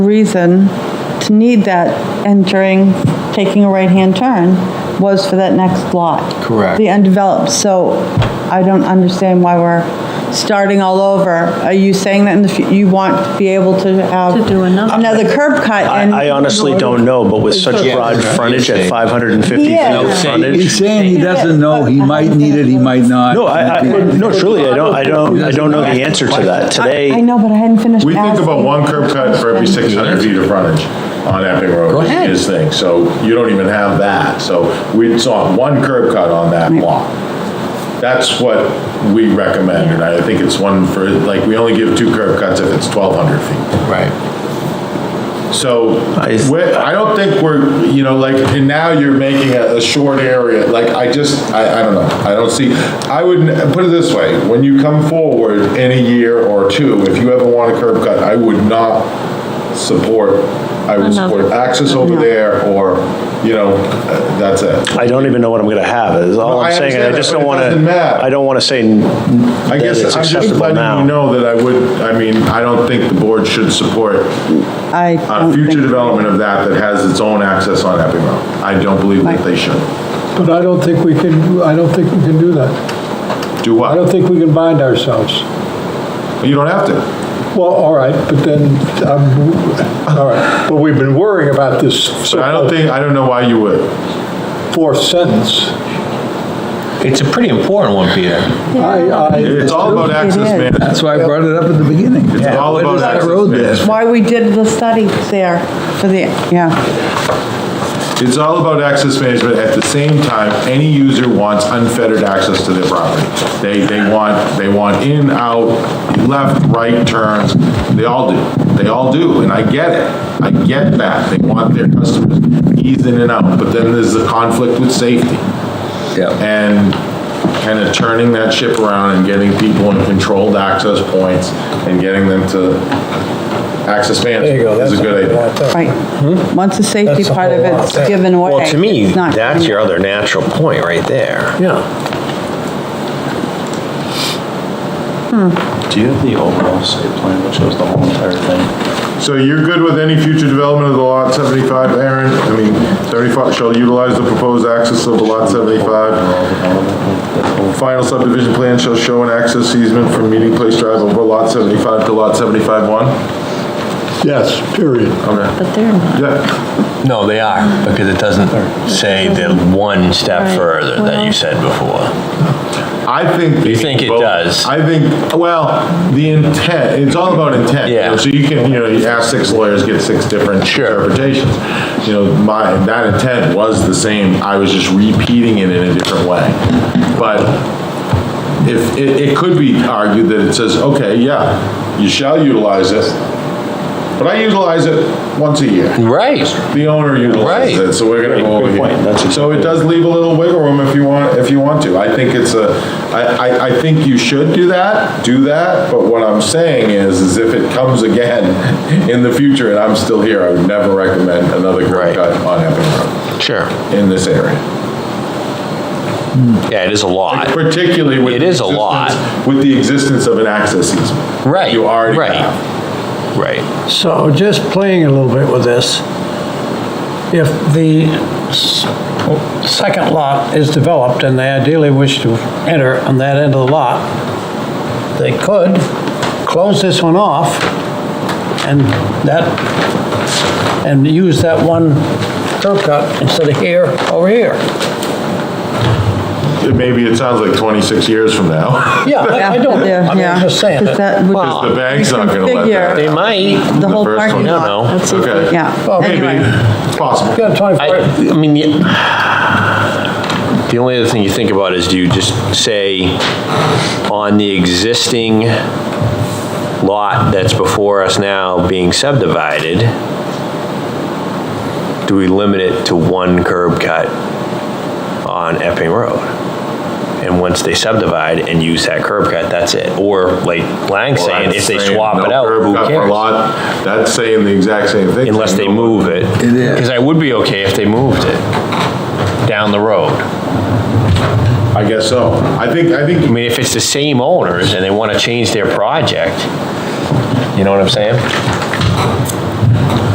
reason to need that entering, taking a right-hand turn was for that next lot. Correct. The undeveloped, so I don't understand why we're starting all over. Are you saying that in the, fu- you want to be able to have? To do another. curb cut and. I I honestly don't know, but with such Yeah. broad frontage at 550 feet Yeah. of He's frontage. saying he doesn't know, he might need it, he might not. No, I, I, no, truly, I don't, I don't, I don't know the answer to that. I Today, know, but I hadn't finished We think about asking. one curb cut for every 600 feet of frontage on Epping Road. Go ahead. Is thing, so you don't even have that, so we saw one curb cut on that lot. That's what we recommend, and I think it's one for, like, we only give two curb cuts if it's 1,200 feet. Right. So, I- we're- I don't think we're, you know, like, and now you're making a, a short area, like, I just, I, I don't know, I don't see, I would, n- put it this way, when you come forward in a year or two, if you ever want a curb cut, I would not support, I would support Another- access over there, or, you know, uh, that's it. I don't even know what I'm gonna have, is all No, I I'm saying. I understand just that, don't but it wanna, doesn't matter. I don't wanna say n- I that guess it's I'm just acceptable letting you now. know that I would, I mean, I don't think the board should support I a don't uh, future think- development of that that has its own access on Epping Road. I don't believe that they should. But I don't think we can, I don't think we can do that. Do what? I don't think we can bind ourselves. You don't have to. Well, all right, but then, um, all right, but we've been worrying about this But I so-called don't think, I don't know why you would. fourth sentence. It's a pretty important one, Peter. I, I, It's all about access is. management. That's why I brought it up at the beginning. It's all about access, Road man. there. Why we did the study there for the, yeah. It's all about access management. At the same time, any user wants unfettered access to their property. They, they want, they want in, out, left, right turns. They all do. They all do, and I get it. I get that. They want their customers eased in and out, but then there's the conflict with safety. Yeah. and kind of turning that ship around and getting people in controlled access points and getting them to access management is a good idea. Hmm? Right. Once the safety part of it's given away. Well, to me, it's not- that's your other natural point right there. yeah, Do you have the overall site plan that shows the whole entire thing? So you're good with any future development of the lot 75, Aaron? I mean, 35, shall utilize the proposed access of the lot 75. Final subdivision plan shall show an access easement from Meeting Place Drive over lot 75 to lot 75-1? yes, period. Okay, But they're not. yeah, No, they are, because it doesn't say the one step Right. further that you said before. I think. You think it Well, does? I think, well, the intent, it's all about intent. you know, Yeah. So you can, you know, you ask six lawyers, get six different interpretations. You know, my, that intent was the same, I was just repeating it in a different way. But if, it, it could be argued that it says, okay, yeah, you shall utilize it, but I utilize it once a year. Right. The owner utilizes Right. it, so we're gonna go over Good point. That's here. exactly- So it does leave a little wiggle room if you want, if you want to. I think it's a, I, I, I think you should do that, do that, but what I'm saying is, is if it comes again in the future and I'm still here, I would never recommend another Right. curb cut on Epping Sure. Road in this area. Yeah, it is a lot. Particularly with. It the is a lot. existence- With the existence of an access easement. Right, You already right. have. Right. So just playing a little bit with this, if the s- second lot is developed and they ideally wish to enter on that end of the lot, they could close this one off and that, and use that one curb cut instead of here, over here. Maybe it sounds like 26 years from now. Yeah, I I don't, Yeah, I mean, yeah. I'm just saying. Because that- that would- Well, The bank's not gonna let that. They Figure. might. The whole first one, parking I don't lot. know. That's- Okay. Yeah, Maybe, anyway. it's possible. You got a 24 I, I mean, the, the only other thing you think about is do you just say on the existing lot that's before us now being subdivided, do we limit it to one curb cut on Epping Road? And once they subdivide and use that curb cut, that's it. Or like Lang's saying, if they Saying swap it no out, curb who cut per cares? lot, That's saying the exact same thing. Unless they move it. It is. Because I would be okay if they moved it down the road. I guess so. I think, I I think, mean, if it's the same owners and they want to change their project, you know what I'm saying?